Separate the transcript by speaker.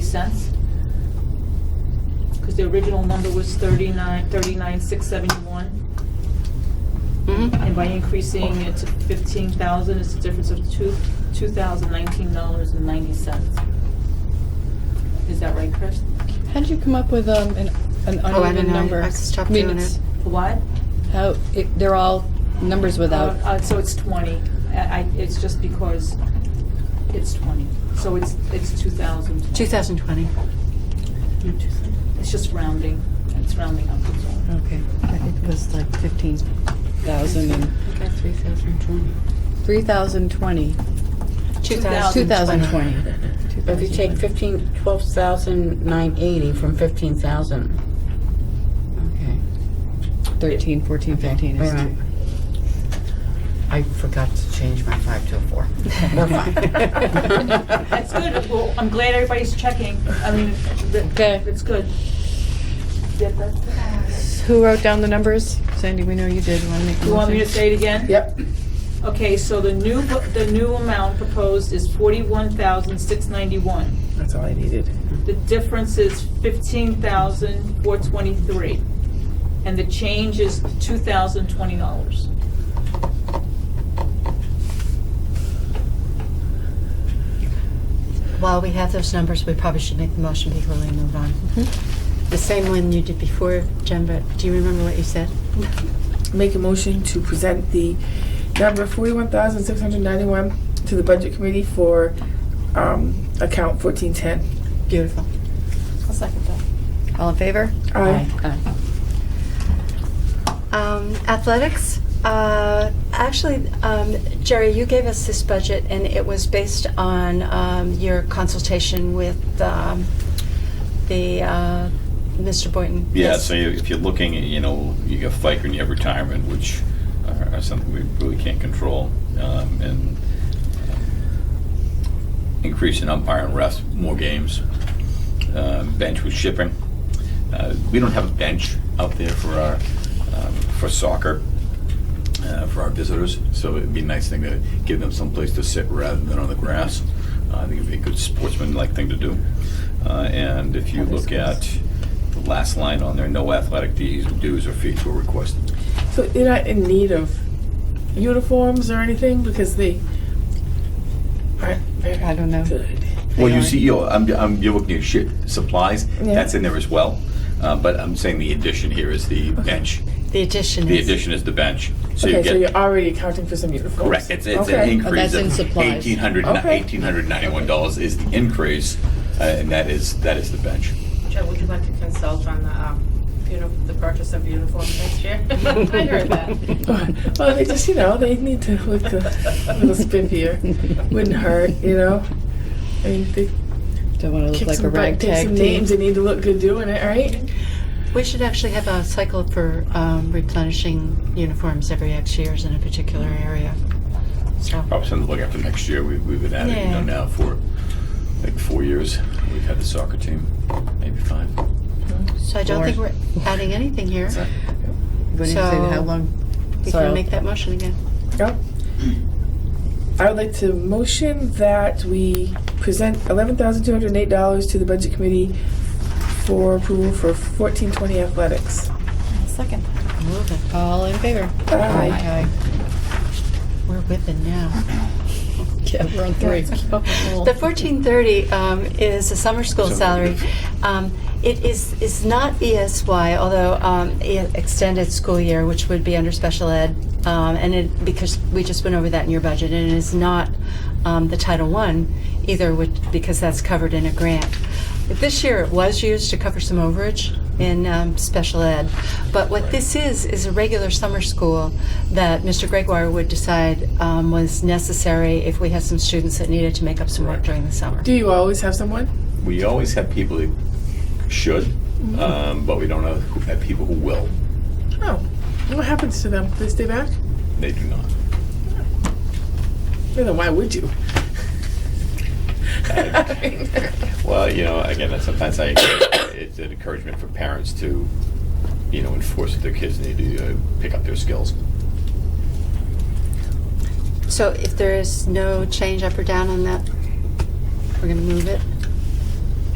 Speaker 1: cents. Because the original number was thirty-nine, thirty-nine, six seventy-one,
Speaker 2: Mm-hmm.
Speaker 1: and by increasing it to fifteen thousand, it's a difference of two, two thousand nineteen dollars and ninety cents. Is that right, Chris?
Speaker 3: How'd you come up with um, an, an uneven
Speaker 2: Oh, I don't know.
Speaker 3: number?
Speaker 2: I stopped
Speaker 3: mean,
Speaker 2: doing
Speaker 3: it's-
Speaker 2: it.
Speaker 1: What?
Speaker 3: How it, they're all numbers without.
Speaker 1: Uh, uh, So it's twenty, I, I- it's just because it's twenty, so it's, it's two thousand.
Speaker 2: 2020.
Speaker 1: It's just rounding, it's rounding up. that's all.
Speaker 3: okay,
Speaker 2: I think it was like 15.
Speaker 3: thousand and
Speaker 2: I got 3,020.
Speaker 3: three thousand twenty.
Speaker 2: 2020.
Speaker 3: Two thousand twenty.
Speaker 4: But If you take fifteen, twelve thousand nine eighty from fifteen thousand. Okay,
Speaker 3: thirteen, fourteen, fifteen
Speaker 4: wait
Speaker 3: is
Speaker 4: a minute.
Speaker 3: two.
Speaker 4: I forgot to change my five to a four. We're fine.
Speaker 1: That's good, well, I'm glad everybody's checking, I mean, th-
Speaker 3: Okay.
Speaker 1: it's good. Yeah, that's good.
Speaker 3: Who wrote down the numbers? Sandy, we know you did. Want to make? a
Speaker 1: You want me to
Speaker 3: motion?
Speaker 1: say it again?
Speaker 4: Yep.
Speaker 1: Okay, so the new, bu- the new amount proposed is forty-one thousand, six ninety-one.
Speaker 4: That's all I needed.
Speaker 1: The difference is fifteen thousand, four twenty-three. And the change is two thousand, twenty dollars.
Speaker 2: While we have those numbers, we probably should make the motion before we move on. The same one you did before, Jen, but do you remember what you said?
Speaker 5: Make a motion to present the number forty-one thousand six hundred ninety-one to the budget committee for, um, account fourteen ten.
Speaker 2: Beautiful.
Speaker 1: I'll second that.
Speaker 3: All in favor?
Speaker 5: Aye.
Speaker 3: Aye.
Speaker 2: Um, athletics. Uh, actually, um, Jerry, you gave us this budget, and it was based on um, your consultation with um, the uh, Mr. Boynton.
Speaker 6: Yeah, so you- if you're looking, at, you know, you got FICA and you have retirement, which are are something we really can't control, um, and increase in umpire and refs, more games, um, bench with shipping. Uh, We don't have a bench out there for our, um, for soccer, uh, for our visitors, so it'd be a nice thing to give them someplace to sit rather than on the grass. Uh, I think it'd be a good sportsman-like thing to do. Uh, And if you look at the last line on there, no athletic fees, dues, or fees were requested.
Speaker 5: So they're not in need of uniforms or anything because they aren't very
Speaker 3: I don't know.
Speaker 5: good.
Speaker 6: Well, you see, you know, I'm, I'm, you're looking at shit, supplies,
Speaker 5: Yeah.
Speaker 6: that's in there as well. Uh, But I'm saying the addition here is the bench.
Speaker 2: The addition
Speaker 6: The
Speaker 2: is.
Speaker 6: addition is the bench. So you
Speaker 5: Okay, so
Speaker 6: get,
Speaker 5: you're already accounting for some uniforms.
Speaker 6: correct, it's, it's an
Speaker 5: Okay. Oh,
Speaker 6: increase
Speaker 3: that's in
Speaker 6: of
Speaker 3: supplies.
Speaker 6: eighteen hundred,
Speaker 5: Okay.
Speaker 6: eighteen hundred ninety-one dollars is the increase, uh, and that is, that is the bench.
Speaker 7: Joe, would you like to consult on the, um, uni- the purchase of uniforms next year? I heard that.
Speaker 5: Well, they just, you know, they need to look a little spiffier. Wouldn't hurt, you know? I mean, they
Speaker 3: Don't want to look
Speaker 5: kick
Speaker 3: like a
Speaker 5: some butt, take
Speaker 3: ragtag
Speaker 5: some
Speaker 3: team.
Speaker 5: names, they need to look good doing it, right?
Speaker 2: We should actually have a cycle for um, replenishing uniforms every X years in a particular area. So,
Speaker 6: Probably something to look after next year, we, we've been at it, you know,
Speaker 2: Yeah.
Speaker 6: now for like four years, we've had the soccer team, maybe five.
Speaker 2: so I don't think
Speaker 3: Lauren.
Speaker 2: we're adding anything here.
Speaker 6: So-
Speaker 3: You wouldn't say
Speaker 2: So-
Speaker 3: how long?
Speaker 2: We
Speaker 3: So-
Speaker 2: can make that motion again.
Speaker 5: Yep. I would like to motion that we present eleven thousand two hundred eight dollars to the budget committee for approval for fourteen twenty athletics.
Speaker 3: Second.
Speaker 2: Move it.
Speaker 3: All in favor?
Speaker 5: Aye.
Speaker 2: We're with it now.
Speaker 3: Yeah, we're on three.
Speaker 2: The fourteen thirty um, is a summer school salary.
Speaker 6: Summer.
Speaker 2: Um, it is is not ESY, although um, e- extended school year, which would be under special ed, um, and it because we just went over that in your budget, and it is not um, the Title One either, which, because that's covered in a grant. This year, it was used to cover some overage in um, special ed, but what this is is a regular summer school that Mr. Gregoire would decide um, was necessary if we had some students that needed to make up some work
Speaker 6: Right.
Speaker 2: during the summer.
Speaker 5: Do you always have someone?
Speaker 6: we always have people who should, um, but we don't know who, have people who will.
Speaker 5: Oh, what happens to them? They stay back?
Speaker 6: They do not.
Speaker 5: Then why would you?
Speaker 6: Well, you know, again, that's sometimes I, it's an encouragement for parents to, you know, enforce that their kids need to uh, pick up their skills.
Speaker 2: So if there is no change up or down on that, we're going to move it.